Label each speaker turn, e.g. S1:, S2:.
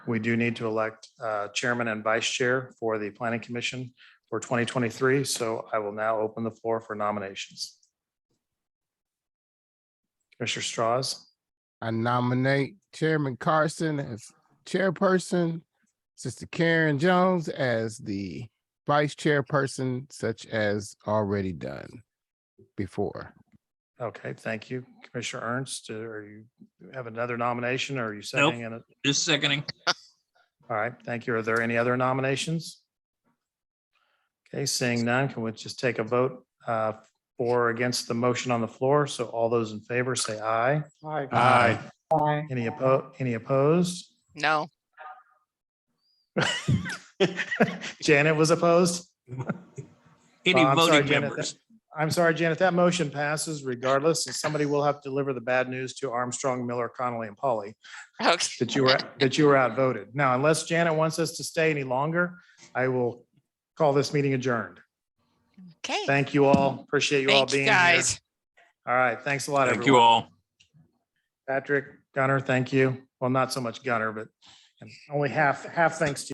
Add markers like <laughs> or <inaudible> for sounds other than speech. S1: we do need to elect uh, chairman and vice chair for the planning commission for 2023. So I will now open the floor for nominations. Commissioner Straws,
S2: I nominate Chairman Carson as chairperson, Sister Karen Jones as the vice chairperson, such as already done before.
S1: okay, thank you. Commissioner Ernst, uh, are you have another nomination or are you seconding it?
S3: Just seconding.
S1: All right, thank you. Are there any other nominations? Okay, seeing none, can we just take a vote uh, for or against the motion on the floor? So all those in favor say aye.
S2: Aye.
S4: Aye.
S1: Any opposed, any opposed?
S5: No, <laughs>
S1: Janet was opposed?
S3: Any
S1: Oh, I'm sorry,
S3: voting
S1: Janet,
S3: members?
S1: I'm sorry, Janet, that motion passes regardless, and somebody will have to deliver the bad news to Armstrong, Miller, Connolly, and Polly
S5: okay,
S1: that you were, that you were outvoted. Now, unless Janet wants us to stay any longer, I will call this meeting adjourned.
S5: okay.
S1: Thank you all. Appreciate you all
S5: Thank
S1: being
S5: you,
S1: here.
S5: guys.
S1: All right, thanks a lot,
S3: Thank you
S1: everyone.
S3: all.
S1: Patrick, Gunner, thank you. Well, not so much Gunner, but and only half, half thanks to